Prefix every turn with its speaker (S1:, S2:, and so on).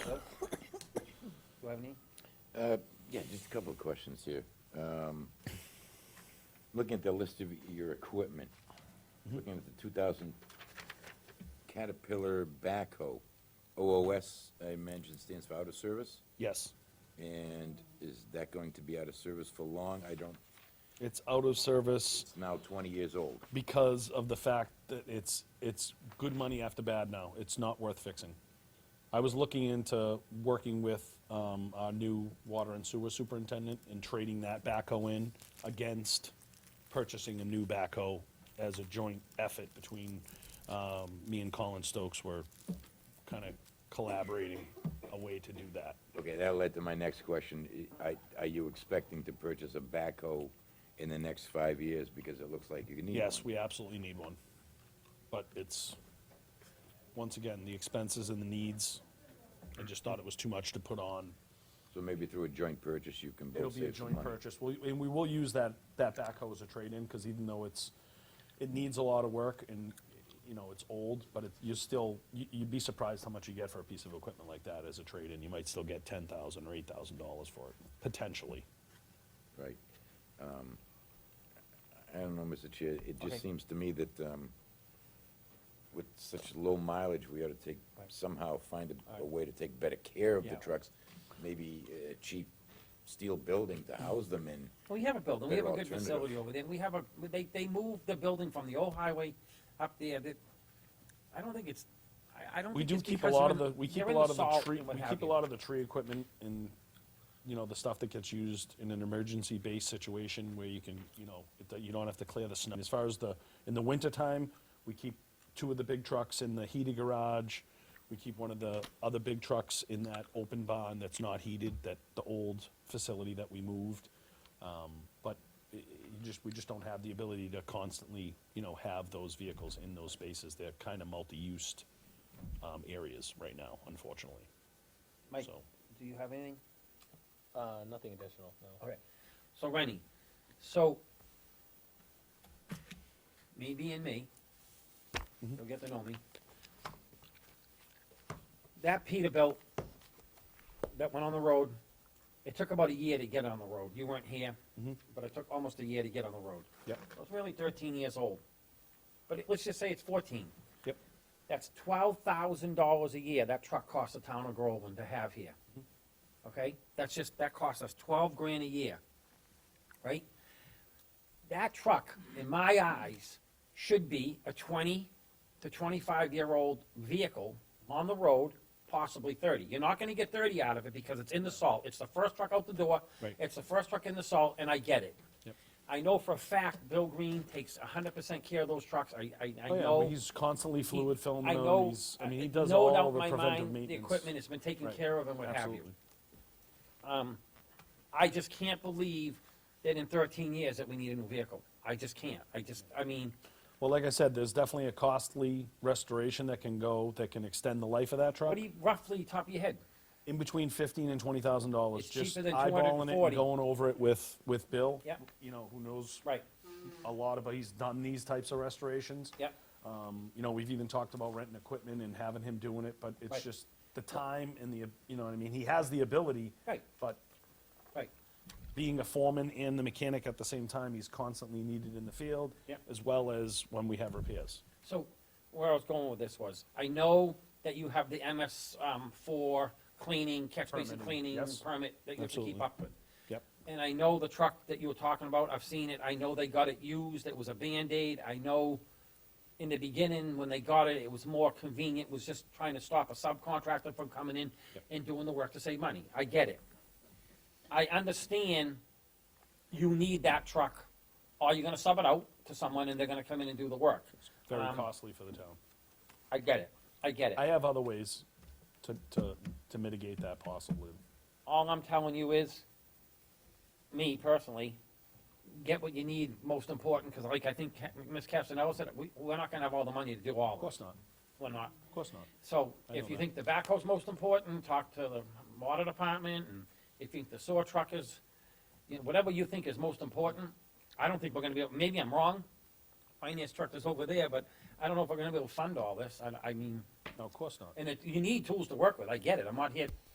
S1: have any?
S2: Uh, Yeah, just a couple of questions here. Um, Looking at the list of your equipment,
S3: Mm-hmm.
S2: looking at the 2000 Caterpillar backhoe, OOS, I imagine stands for out of service?
S3: Yes,
S2: And is that going to be out of service for long? I don't,
S3: it's out of service
S2: it's now 20 years old.
S3: because of the fact that it's, it's good money after bad now. It's not worth fixing. I was looking into working with um, our new water and sewer superintendent and trading that backhoe in against purchasing a new backhoe as a joint effort between um, me and Colin Stokes were kind of collaborating a way to do that.
S2: Okay, that led to my next question. I- I- Are you expecting to purchase a backhoe in the next five years? Because it looks like you need one.
S3: Yes, we absolutely need one. But it's, once again, the expenses and the needs, I just thought it was too much to put on.
S2: So maybe through a joint purchase, you can
S3: It'll
S2: both
S3: be a
S2: save some
S3: joint
S2: money.
S3: purchase, We- and we will use that, that backhoe as a trade-in, because even though it's, it needs a lot of work and, you know, it's old, but it, you still, you- you'd be surprised how much you get for a piece of equipment like that as a trade-in. You might still get ten thousand or eight thousand dollars for it, potentially.
S2: Right. Um, I don't know, Mr. Chair, it
S1: Okay.
S2: just seems to me that um, with such low mileage, we ought to take,
S1: Right.
S2: somehow find a- a way to take better care of the
S1: Yeah.
S2: trucks. Maybe a cheap steel building to house them in.
S1: Well, we have a building, we have
S2: Better
S1: a good
S2: alternative.
S1: facility over there, we have a, they, they moved the building from the old highway up there, that, I don't think it's, I, I don't
S3: We
S1: think
S3: do
S1: it's
S3: keep a
S1: because
S3: lot
S1: they're
S3: of the,
S1: in,
S3: we keep
S1: they're
S3: a
S1: in the
S3: lot of the
S1: salt
S3: tree,
S1: and what
S3: we
S1: have
S3: keep a
S1: you.
S3: lot of the tree equipment and, you know, the stuff that gets used in an emergency-based situation where you can, you know, it- that you don't have to clear the snow. As far as the, in the wintertime, we keep two of the big trucks in the heated garage. We keep one of the other big trucks in that open barn that's not heated, that, the old facility that we moved. Um, But i- i- you just, we just don't have the ability to constantly, you know, have those vehicles in those spaces. They're kind of multi-used um, areas right now, unfortunately.
S1: Mike,
S3: so.
S1: do you have anything?
S4: Uh, nothing additional, no.
S1: Okay, so Rennie, so, me being me, you'll get to know me. That Peterbilt that went on the road, it took about a year to get on the road, you weren't here, but it took almost a year to get on the road.
S3: Yep.
S1: It was really thirteen years old, but it- let's just say it's fourteen.
S3: Yep.
S1: That's twelve thousand dollars a year that truck costs the town of Groveland to have here.
S3: Mm-hmm.
S1: Okay, that's just, that costs us twelve grand a year, right? That truck, in my eyes, should be a twenty to twenty-five-year-old vehicle on the road, possibly thirty. You're not gonna get thirty out of it because it's in the salt, it's the first truck out the door.
S3: Right.
S1: It's the first truck in the salt, and I get it.
S3: Yep.
S1: I know for a fact Bill Green takes hundred percent care of those trucks, I, I, I
S3: Oh, yeah,
S1: know.
S3: but he's constantly fluid filling
S1: I
S3: them,
S1: know-
S3: he's- I mean, he
S1: I-
S3: does
S1: no
S3: all
S1: doubt in
S3: the
S1: my
S3: preventive
S1: mind, The
S3: maintenance.
S1: equipment has been taken
S3: Right.
S1: care of and what have you.
S3: Absolutely.
S1: Um, I just can't believe that in thirteen years that we need a new vehicle. I just can't. I just, I mean,
S3: Well, like I said, there's definitely a costly restoration that can go, that can extend the life of that
S1: what
S3: truck.
S1: do you, roughly, top of your head?
S3: In between fifteen and twenty thousand dollars,
S1: It's cheaper
S3: just
S1: than
S3: eyeballing it and
S1: 240.
S3: going over it with, with Bill.
S1: Yep.
S3: You know, who knows
S1: Right,
S3: a lot about, he's done these types of restorations.
S1: yep.
S3: Um, you know, we've even talked about renting equipment and having him doing it, but it's
S1: Right.
S3: just the time and the, you know what I mean? He has the ability.
S1: Right.
S3: But
S1: Right,
S3: being a foreman and the mechanic at the same time, he's constantly needed in the field.
S1: Yep.
S3: As well as when we have repairs.
S1: so where I was going with this was, I know that you have the MS, um, for cleaning, catch basin
S3: Permitting,
S1: cleaning
S3: yes.
S1: permit that you have to keep
S3: Absolutely.
S1: up with.
S3: Yep.
S1: And I know the truck that you were talking about, I've seen it, I know they got it used, it was a Band-Aid, I know in the beginning, when they got it, it was more convenient, was just trying to stop a subcontractor from coming in
S3: Yep.
S1: and doing the work to save money, I get it. I understand you need that truck, or you're gonna sub it out to someone and they're gonna come in and do the work.
S3: Very
S1: Um,
S3: costly for the town.
S1: I get it, I get it.
S3: I have other ways to, to, to mitigate that possibly.
S1: all I'm telling you is, me personally, get what you need most important, because like I think Ca- Ms. Castanella said, we, we're not gonna have all the money to do all
S3: Of
S1: of it.
S3: course not,
S1: We're not.
S3: of course not.
S1: So
S3: I
S1: if
S3: know
S1: you
S3: that.
S1: think the backhoe's most important, talk to the water department, and if you think the sewer truck is, you know, whatever you think is most important, I don't think we're gonna be, able. maybe I'm wrong. Finance director's over there, but I don't know if we're gonna be able to fund all this. I, I mean,
S3: No, of course not.
S1: and it, you need tools to work with, I get it, I'm not here